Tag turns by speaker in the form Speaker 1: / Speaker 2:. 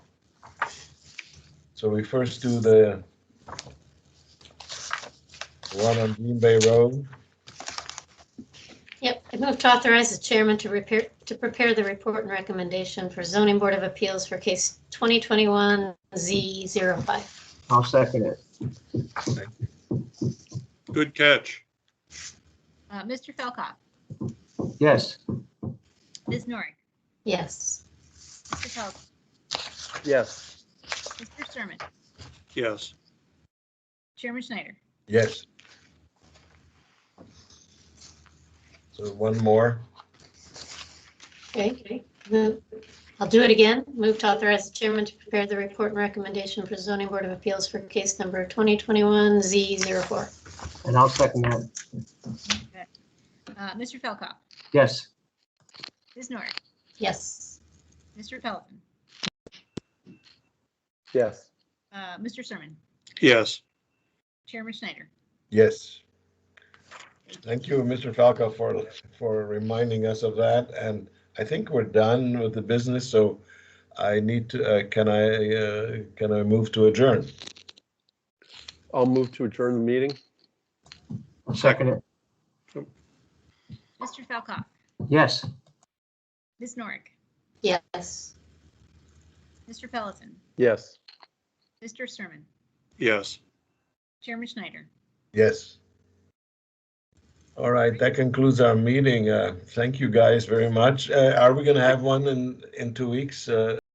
Speaker 1: So we first do the one on Green Bay Road.
Speaker 2: Yep, I move to authorize the chairman to repair, to prepare the report and recommendation for zoning board of appeals for case 2021 Z05.
Speaker 3: I'll second it.
Speaker 4: Good catch.
Speaker 5: Uh, Mr. Felkoff,
Speaker 3: Yes,
Speaker 5: Ms. Norick,
Speaker 2: Yes,
Speaker 5: Mr. Pelt,
Speaker 6: yes,
Speaker 5: Mr. Sermon,
Speaker 4: Yes.
Speaker 5: Chairman Schneider.
Speaker 1: Yes. So one more.
Speaker 2: okay. Move- I'll do it again. Move to authorize the chairman to prepare the report and recommendation for zoning board of appeals for case number 2021 Z04.
Speaker 3: and I'll second that.
Speaker 5: Uh, Mr. Felkoff,
Speaker 3: Yes,
Speaker 5: Ms. Norick,
Speaker 2: Yes,
Speaker 5: Mr. Pelton,
Speaker 6: yes,
Speaker 5: uh, Mr. Sermon,
Speaker 4: Yes.
Speaker 5: Chairman Schneider.
Speaker 1: Yes. Thank you, Mr. Falco, for, for reminding us of that, and I think we're done with the business, so I need to, uh, can I, uh, can I move to adjourn?
Speaker 6: I'll move to adjourn the meeting,
Speaker 3: I'll second it.
Speaker 5: Mr. Felkoff,
Speaker 3: Yes,
Speaker 5: Ms. Norick,
Speaker 2: yes.
Speaker 5: Mr. Pelton,
Speaker 6: yes.
Speaker 5: Mr. Sermon,
Speaker 4: Yes.
Speaker 5: Chairman Schneider.
Speaker 1: Yes. All right, that concludes our meeting. Uh, Thank you guys very much. Uh, Are we gonna have one in, in two weeks? Uh,